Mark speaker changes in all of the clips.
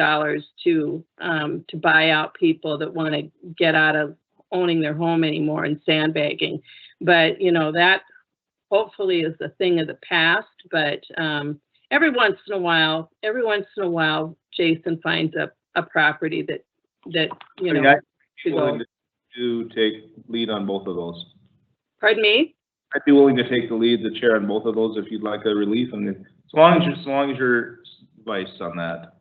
Speaker 1: dollars to, um, to buy out people that want to get out of owning their home anymore and sandbagging. But, you know, that hopefully is a thing of the past, but, um, every once in a while, every once in a while, Jason finds a, a property that, that, you
Speaker 2: I mean,
Speaker 1: know,
Speaker 2: I'd
Speaker 1: to
Speaker 2: be willing
Speaker 1: go.
Speaker 2: to- to take lead on both of those.
Speaker 1: Pardon me?
Speaker 2: I'd be willing to take the lead, the chair on both of those if you'd like a relief and then, as long as, you- as long as your advice on that.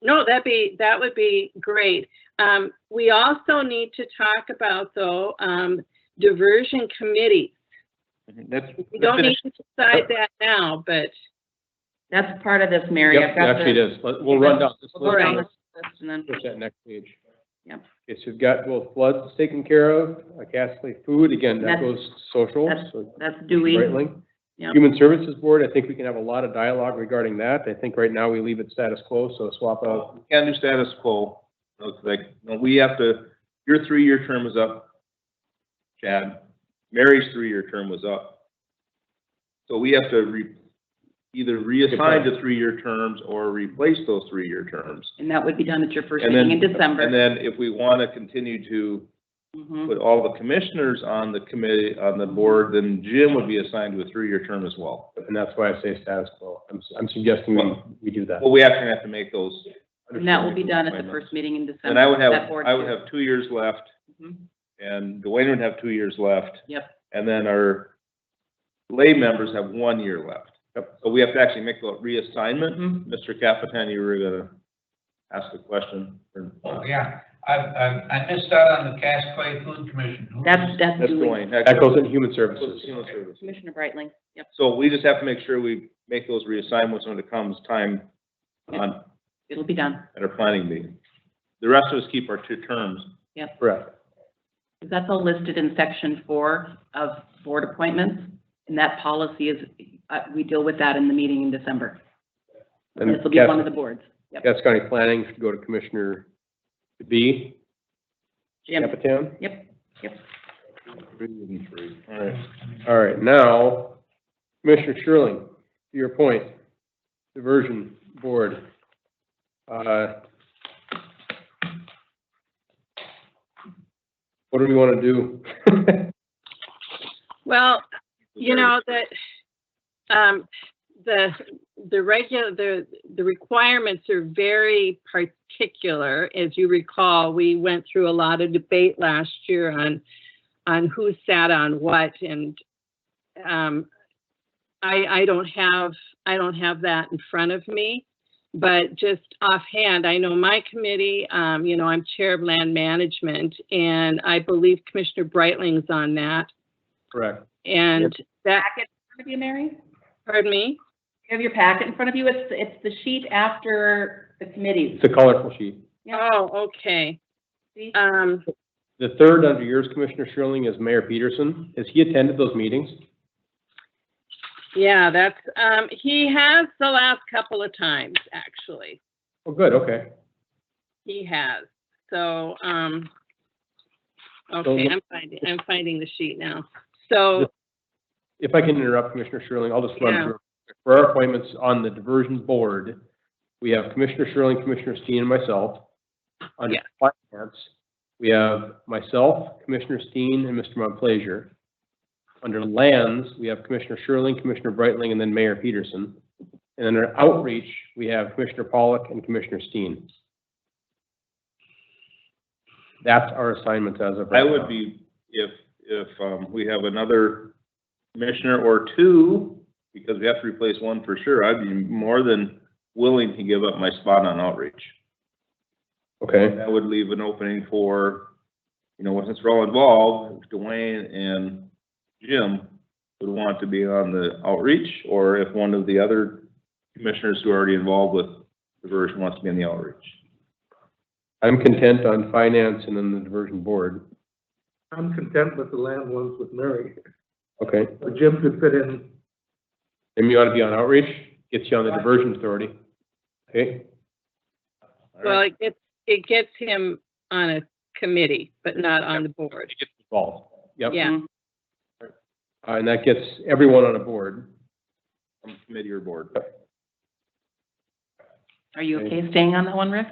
Speaker 1: No, that'd be, that would be great. Um, we also need to talk about though, um, diversion committee.
Speaker 2: That's.
Speaker 1: We don't need to decide that now, but
Speaker 3: That's part of this, Mary. I've got
Speaker 4: Actually, it
Speaker 3: the.
Speaker 4: is, Let- we'll run down this
Speaker 3: We'll go down
Speaker 1: Alright.
Speaker 4: list,
Speaker 3: this list and then-
Speaker 4: finish that next page.
Speaker 3: Yep.
Speaker 4: Okay, so you've got both floods taken care of, uh, Castley Food, again, that
Speaker 3: That's-
Speaker 4: goes social,
Speaker 3: that's-
Speaker 4: so
Speaker 3: That's Dewey.
Speaker 4: right link.
Speaker 3: Yep.
Speaker 4: Human Services Board, I think we can have a lot of dialogue regarding that, I think right now we leave it status quo, so swap out.
Speaker 2: Uh, We Can't do status quo. It's like, no, we have to, your three-year term is up, Chad. Mary's three-year term was up. So we have to re, either reassign to three-year terms or replace those three-year terms.
Speaker 3: And that would be done at your first
Speaker 2: And then-
Speaker 3: meeting in
Speaker 2: And
Speaker 3: December.
Speaker 2: then if we want to continue to
Speaker 3: Mhm.
Speaker 2: put all the commissioners on the committee, on the board, then Jim would be assigned to a three-year term as well.
Speaker 4: And that's why I say status quo, I'm, s- I'm suggesting we, we do that.
Speaker 2: Well, we actually have to make those.
Speaker 3: And that will be done at the first meeting in December.
Speaker 2: And I would have,
Speaker 3: that board
Speaker 2: I would
Speaker 3: too.
Speaker 2: have two years left,
Speaker 3: Mhm.
Speaker 2: and Dwayne would have two years left.
Speaker 3: Yep.
Speaker 2: And then our lay members have one year left.
Speaker 4: Yep.
Speaker 2: So we have to actually make the reassignment.
Speaker 3: Mhm.
Speaker 2: Mr. Capitan, you were gonna ask the question. or-
Speaker 5: Oh, yeah, I, I, I missed out on the Cass Clay Food Commission. Who
Speaker 3: That's,
Speaker 5: was-
Speaker 3: that's
Speaker 2: That's
Speaker 3: Dewey.
Speaker 2: Dwayne.
Speaker 4: That goes in Human Services.
Speaker 2: Human services.
Speaker 3: Commissioner Brightling, yep.
Speaker 2: So we just have to make sure we make those reassignments when it comes time on,
Speaker 3: It'll be done.
Speaker 2: at our planning meeting. The rest of us keep our two terms.
Speaker 4: Correct.
Speaker 3: That's all listed in section four of board appointments. And that policy is, uh, we deal with that in the meeting in December.
Speaker 4: And
Speaker 3: This will be
Speaker 4: Cass-
Speaker 3: one of the boards. Yep.
Speaker 4: Cass County Planning should go to Commissioner B,
Speaker 3: Jim,
Speaker 4: Capitan.
Speaker 3: yep, yep.
Speaker 2: Three and three. All right.
Speaker 4: All right, now, Commissioner Sherling, to your point, diversion board. uh, What do we want to do?
Speaker 1: well, you know, that, um, the, the regular, the, the requirements are very particular. As you recall, we went through a lot of debate last year on, on who sat on what and, um, I, I don't have, I don't have that in front of me. But just offhand, I know my committee, um, you know, I'm Chair of Land Management and I believe Commissioner Brightling's on that.
Speaker 4: Correct.
Speaker 1: And that,
Speaker 3: Packet in front of you, Mary?
Speaker 1: pardon me?
Speaker 3: You have your packet in front of you. It's, it's the sheet after the committees.
Speaker 4: It's a colorful sheet.
Speaker 3: Yeah.
Speaker 1: Oh, okay.
Speaker 3: See?
Speaker 1: Um,
Speaker 4: The third under yours, Commissioner Sherling, is Mayor Peterson. Has he attended those meetings?
Speaker 1: yeah, that's, um, he has the last couple of times, actually.
Speaker 4: Oh, good, okay.
Speaker 1: He has. So, um, okay, I'm finding, I'm finding the sheet now. So,
Speaker 4: If I can interrupt, Commissioner Sherling, I'll just run
Speaker 1: Yeah.
Speaker 4: through. For our appointments on the diversion board, we have Commissioner Sherling, Commissioner Steen, and myself. Under finance, we have myself, Commissioner Steen, and Mr. Montplaisir. Under lands, we have Commissioner Sherling, Commissioner Brightling, and then Mayor Peterson. And under outreach, we have Commissioner Pollock and Commissioner Steen. That's our assignments as of right
Speaker 2: I
Speaker 4: now.
Speaker 2: would be, if, if, um, we have another commissioner or two, because we have to replace one for sure, I'd be more than willing to give up my spot on outreach.
Speaker 4: Okay.
Speaker 2: That would leave an opening for, you know, since we're all involved, Dwayne and Jim would want to be on the outreach, or if one of the other commissioners who are already involved with diversion wants to be on the outreach.
Speaker 4: I'm content on finance and then the diversion board.
Speaker 6: I'm content with the land ones with Mary.
Speaker 4: Okay.
Speaker 6: So Jim could fit in,
Speaker 4: Jim, you ought to be on outreach, gets you on the diversion authority. Okay,
Speaker 2: All
Speaker 1: well,
Speaker 2: right.
Speaker 1: it gets, it gets him on a committee, but not on the board.
Speaker 4: involved. Yep.
Speaker 1: Yeah.
Speaker 4: Uh, And that gets everyone on a board.
Speaker 2: On Committee or board.
Speaker 3: Are you okay staying on that one, Rick?